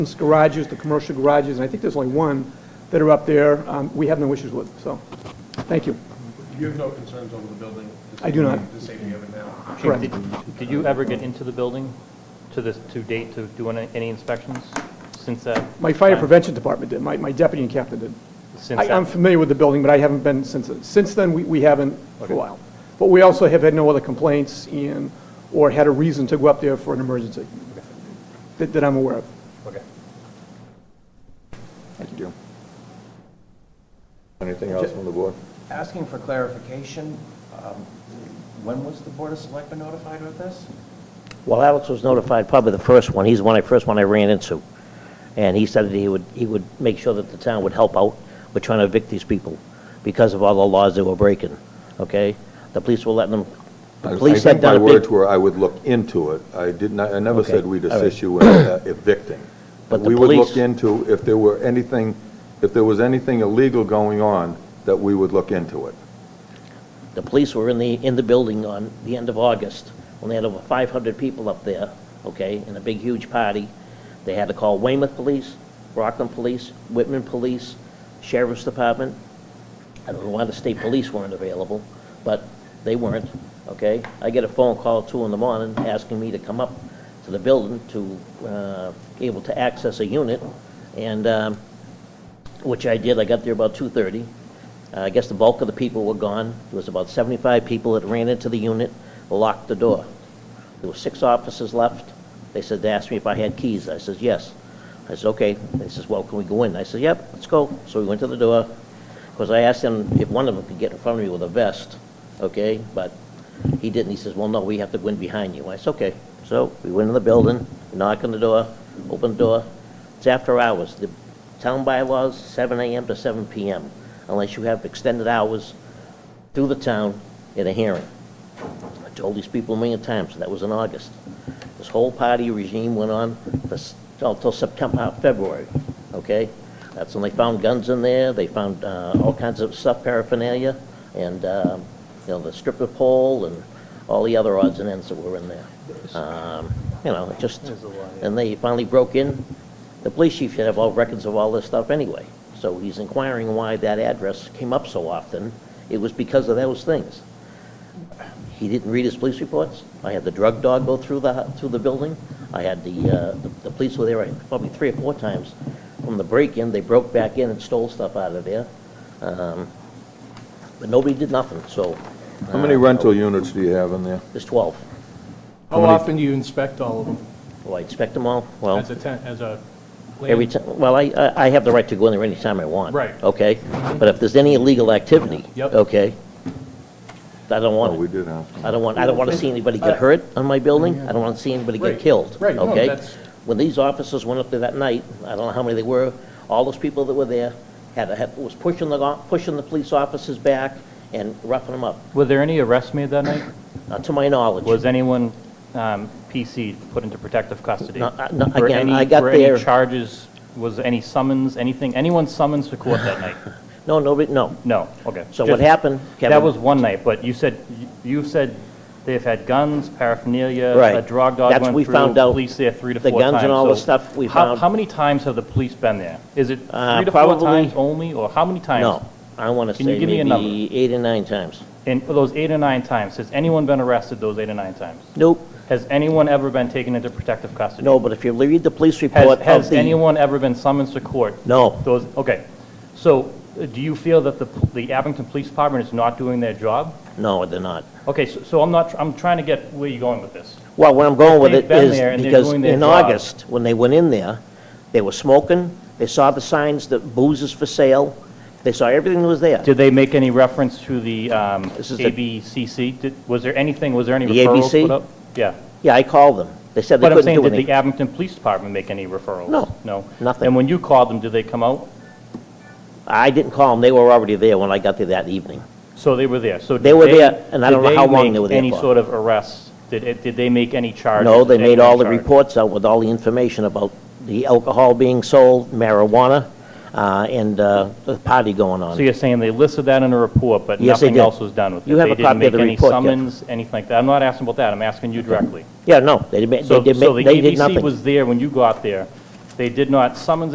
Those garages, the commercial garages, and I think there's only one that are up there, um, we have no issues with, so, thank you. You have no concerns over the building? I do not. The safety of it now? Correct. Did did you ever get into the building to this, to date, to do any any inspections since that? My fire time? prevention department did, my my deputy and captain did. Since I- I'm that- familiar with the building, but I haven't been since, since then, we we haven't for a while. But we also have had no other complaints and, or had a reason to go up there for an emergency that that I'm aware of. Okay. Thank you, Jim. Anything else from the board? Asking for clarification, um, when was the Board of Selectmen notified of this? Well, Alex was notified, probably the first one, he's the one, I first one I ran into. And he said that he would, he would make sure that the town would help out with trying to evict these people because of all the laws they were breaking, okay? The police were letting them, I- the police had I done a think my words big... were, I would look into it. I did not, I never Okay, said we'd all right. assist you in uh, evicting. But the We would look police- into if there were anything, if there was anything illegal going on, that we would look into it. The police were in the, in the building on the end of August, when they had over 500 people up there, okay, in a big, huge party. They had to call Weymouth Police, Rockland Police, Whitman Police, Sheriff's Department. I don't know why the state police weren't available, but they weren't, okay? I get a phone call at 2 in the morning asking me to come up to the building to, uh, able to access a unit, and, um, which I did, I got there about 2:30. Uh, I guess the bulk of the people were gone. There was about 75 people that ran into the unit, locked the door. There were six officers left. They said, they asked me if I had keys. I says, yes. I said, okay. They says, well, can we go in? I said, yep, let's go. So we went to the door, because I asked him if one of them could get in front of me with a vest, okay? But he didn't. He says, well, no, we have to go in behind you. I said, okay. So we went in the building, knocked on the door, opened the door. It's after hours. The town bylaws, 7 AM to 7 PM, unless you have extended hours through the town in a hearing. I told these people a million times, that was in August. This whole party regime went on for s- till till September, February, okay? That's when they found guns in there, they found uh, all kinds of stuff, paraphernalia, and, um, you know, the stripper pole and all the other odds and ends that were in there. Um, You know, it just, There's a lot, yeah. and they finally broke in. The police chief should have all records of all this stuff anyway, so he's inquiring why that address came up so often. It was because of those things. He didn't read his police reports. I had the drug dog go through the, through the building. I had the, uh, the- the police were there probably three or four times. From the break-in, they broke back in and stole stuff out of there. Um, But nobody did nothing, so uh, How many rental units do you have in there? there's 12. How often do you inspect all of them Do I expect them all? Well... as a tent, as a land? Every time, well, I, I- I have the right to go in there anytime I want. Right. Okay? But if there's any illegal activity. Yep. Okay? I don't Oh, want we it. did have. some. I don't want, I don't want to see anybody get hurt on my building. I don't want to see anybody Uh, Right. get killed. Right. No, Okay? that's- When these officers went up there that night, I don't know how many they were, all those people that were there had, a- had, was pushing the, go- pushing the police officers back and roughing them up. Were there any arrests made that night? Now, to my knowledge. Was anyone um, PC'd, put into protective custody? No, I- no, Were again, any- I got Were there- any charges, was any summons, anything, anyone summons to court that night? No, nobody, no. No, okay. So what Just- happened, Kevin? That was one night, but you said, you said they've had guns, paraphernalia, Right. a drug dog That's went what we through, found out. police there three to The four times. guns and all the So stuff we how- found. How many times have the police been there? Is it Uh, three to four probably- times only, or how many times? No. I want to Can you say give me a number? maybe eight or nine times. In those eight or nine times, has anyone been arrested those eight or nine times? Nope. Has anyone ever been taken into protective custody? No, but if you read the police report Has, of has the, anyone ever been summoned to court? no, Those, okay. So uh, do you feel that the, p- the Abington Police Department is not doing their job? no, they're not. Okay, so, so I'm not, tr- I'm trying to get where you're going with this. Well, where I'm going with They've it been there is and they're because doing their in job. August, when they went in there, they were smoking, they saw the signs that booze is for sale, they saw everything that was there. Did they make any reference to the um, This is the- ABCC? Did- Was there anything, was there any The referrals ABC? put up? Yeah. Yeah, I called them. They said they But I'm couldn't saying, do did the anything. Abington Police Department make any referrals? No, No? nothing. And when you called them, did they come out? I didn't call them, they were already there when I got there that evening. So they were there, so. did They were there, and I did don't know how long make they were there Any for. sort of arrests? Did, it- did they make any charges? No, they Did made anyone all the charge? reports out with all the information about the alcohol being sold, marijuana, uh, and uh, the party going on. So you're saying they listed that in a report, but Yes, they nothing did. else was done with it? You have a copy of the report, Jeff. They didn't make any summons, anything like that? I'm not asking about that, I'm asking you directly. Yeah, no, they did, ma- they So, did, so ma- the they did ABC nothing. was there when you got there. They did not summons